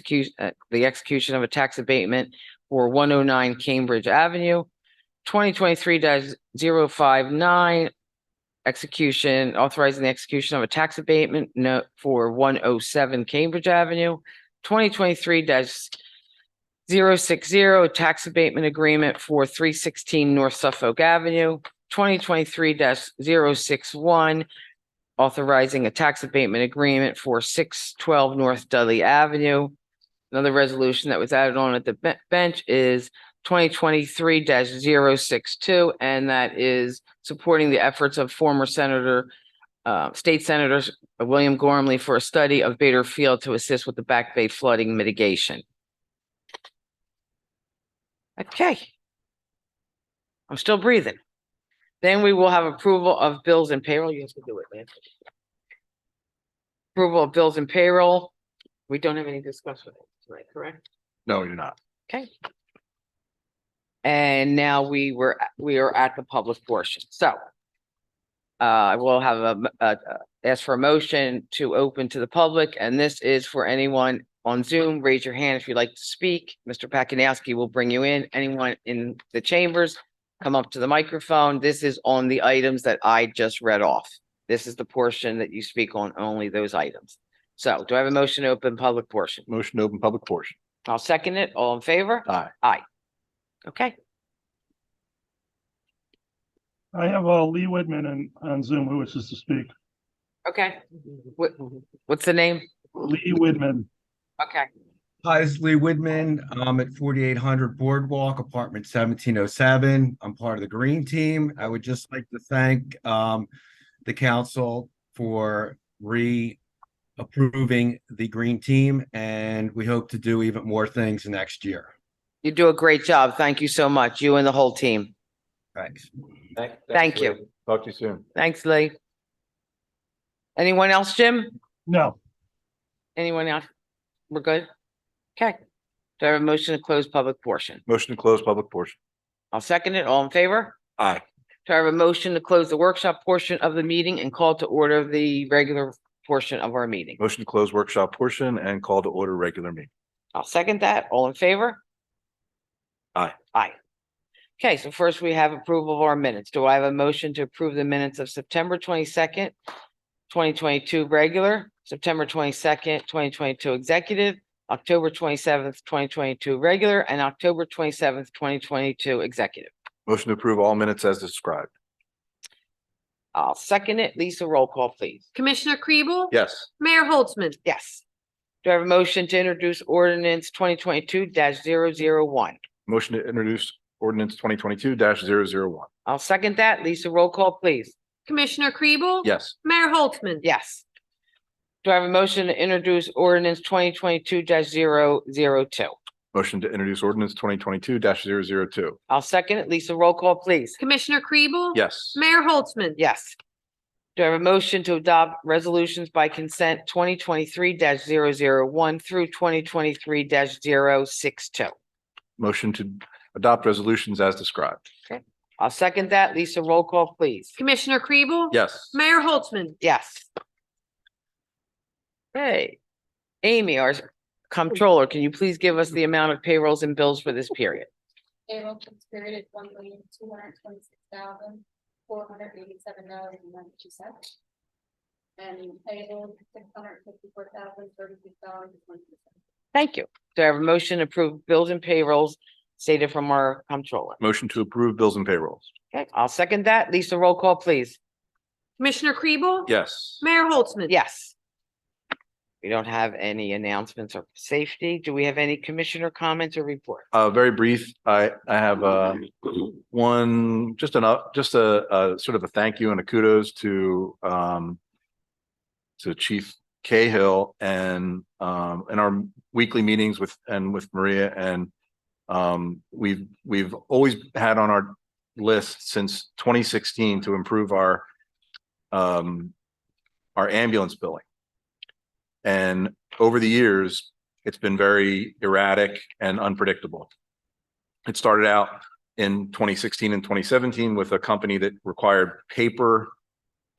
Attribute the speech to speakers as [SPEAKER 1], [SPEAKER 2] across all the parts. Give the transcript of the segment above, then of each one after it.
[SPEAKER 1] execu- uh, the execution of a tax abatement for one oh nine Cambridge Avenue. Twenty twenty-three 59 execution, authorizing the execution of a tax abatement note for one oh seven Cambridge Avenue. Twenty twenty-three 60 tax abatement agreement for three sixteen North Suffolk Avenue. Twenty twenty-three 61 authorizing a tax abatement agreement for six twelve North Dudley Avenue. Another resolution that was added on at the be- bench is twenty twenty-three 62 and that is supporting the efforts of former Senator, uh, State Senator William Gormley for a study of Bader Field to assist with the Back Bay flooding mitigation. Okay. I'm still breathing. Then we will have approval of bills and payroll. You have to do it, man. Approval of bills and payroll. We don't have any discussion tonight, correct?
[SPEAKER 2] No, you're not.
[SPEAKER 1] And now we were, we are at the public portion, so. Uh, I will have a, m- uh, uh, ask for a motion to open to the public, and this is for anyone on Zoom. Raise your hand if you'd like to speak. Mr. Pakinowski will bring you in. Anyone in the chambers, come up to the microphone. This is on the items that I just read off. This is the portion that you speak on, only those items. So do I have a motion to open public portion?
[SPEAKER 2] Motion to open public portion.
[SPEAKER 1] I'll second it. All in favor?
[SPEAKER 2] Aye.
[SPEAKER 1] Okay.
[SPEAKER 3] I have uh, Lee Whitman on, on Zoom who wishes to speak.
[SPEAKER 1] Okay. What, what's the name?
[SPEAKER 3] Lee Whitman.
[SPEAKER 1] Okay.
[SPEAKER 4] Hi, this is Lee Whitman. I'm um, at forty-eight hundred Boardwalk, apartment seventeen oh seven. I'm part of the green team. I would just like to thank um the council for re-approving the green team, and we hope to do even more things next year.
[SPEAKER 1] You do a great job. Thank you so much, you and the whole team.
[SPEAKER 4] Thanks.
[SPEAKER 1] Thank you. Lee.
[SPEAKER 2] Talk to you soon.
[SPEAKER 1] Thanks, Lee. Anyone else, Jim?
[SPEAKER 3] No,
[SPEAKER 1] Anyone else? We're good? Okay. Do I have a motion to close public portion?
[SPEAKER 2] Motion to close public portion.
[SPEAKER 1] I'll second it. All in favor?
[SPEAKER 2] Aye.
[SPEAKER 1] Do I have a motion to close the workshop portion of the meeting and call to order the regular portion of our meeting?
[SPEAKER 2] Motion to close workshop portion and call to order regular meeting.
[SPEAKER 1] I'll second that. All in favor?
[SPEAKER 2] Aye.
[SPEAKER 1] Aye. Okay, so first we have approval of our minutes. Do I have a motion to approve the minutes of September twenty-second, twenty twenty-two regular, September twenty-second, twenty twenty-two executive, October twenty-seventh, twenty twenty-two regular, and October twenty-seventh, twenty twenty-two executive?
[SPEAKER 2] Motion to approve all minutes as described.
[SPEAKER 1] I'll second it. Lisa, roll call, please.
[SPEAKER 5] Commissioner Kribel?
[SPEAKER 2] Yes.
[SPEAKER 5] Mayor Holtzman?
[SPEAKER 1] Yes. Do I have a motion to introduce ordinance twenty twenty-two one
[SPEAKER 2] Motion to introduce ordinance twenty twenty-two one
[SPEAKER 1] I'll second that. Lisa, roll call, please.
[SPEAKER 5] Commissioner Kribel?
[SPEAKER 2] Yes.
[SPEAKER 5] Mayor Holtzman?
[SPEAKER 1] Yes. Do I have a motion to introduce ordinance twenty twenty-two 2 zero zero two?
[SPEAKER 2] Motion to introduce ordinance twenty twenty-two one
[SPEAKER 1] I'll second it. Lisa, roll call, please.
[SPEAKER 5] Commissioner Kribel?
[SPEAKER 2] Yes.
[SPEAKER 5] Mayor Holtzman?
[SPEAKER 1] Yes. Do I have a motion to adopt resolutions by consent twenty twenty-three one through twenty twenty-three 62
[SPEAKER 2] Motion to adopt resolutions as described.
[SPEAKER 1] I'll second that. Lisa, roll call, please.
[SPEAKER 5] Commissioner Kribel?
[SPEAKER 2] Yes.
[SPEAKER 5] Mayor Holtzman?
[SPEAKER 1] Yes. Hey, Amy, our comptroller, can you please give us the amount of payrolls and bills for this period?
[SPEAKER 6] Payroll tax period is one million, two hundred twenty-six thousand, four hundred eighty-seven dollars and ninety-two cents. And payroll, six hundred fifty-four thousand, thirty-six dollars and twenty-two cents.
[SPEAKER 1] Thank you. Do I have a motion to approve bills and payrolls stated from our comptroller?
[SPEAKER 2] Motion to approve bills and payrolls.
[SPEAKER 1] Okay, I'll second that. Lisa, roll call, please.
[SPEAKER 5] Commissioner Kribel?
[SPEAKER 2] Yes.
[SPEAKER 5] Mayor Holtzman?
[SPEAKER 1] Yes. We don't have any announcements of safety. Do we have any commissioner comments or report?
[SPEAKER 2] Uh, very brief. I, I have, uh, one, just an, up- just a, a sort of a thank you and a kudos to, um, to Chief Cahill and, um, in our weekly meetings with, and with Maria and, um, we've, we've always had on our list since twenty sixteen to improve our, um, our ambulance billing. And over the years, it's been very erratic and unpredictable. It started out in twenty sixteen and twenty seventeen with a company that required paper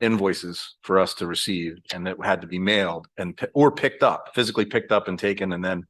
[SPEAKER 2] invoices for us to receive and that had to be mailed and, pi- or picked up, physically picked up and taken and then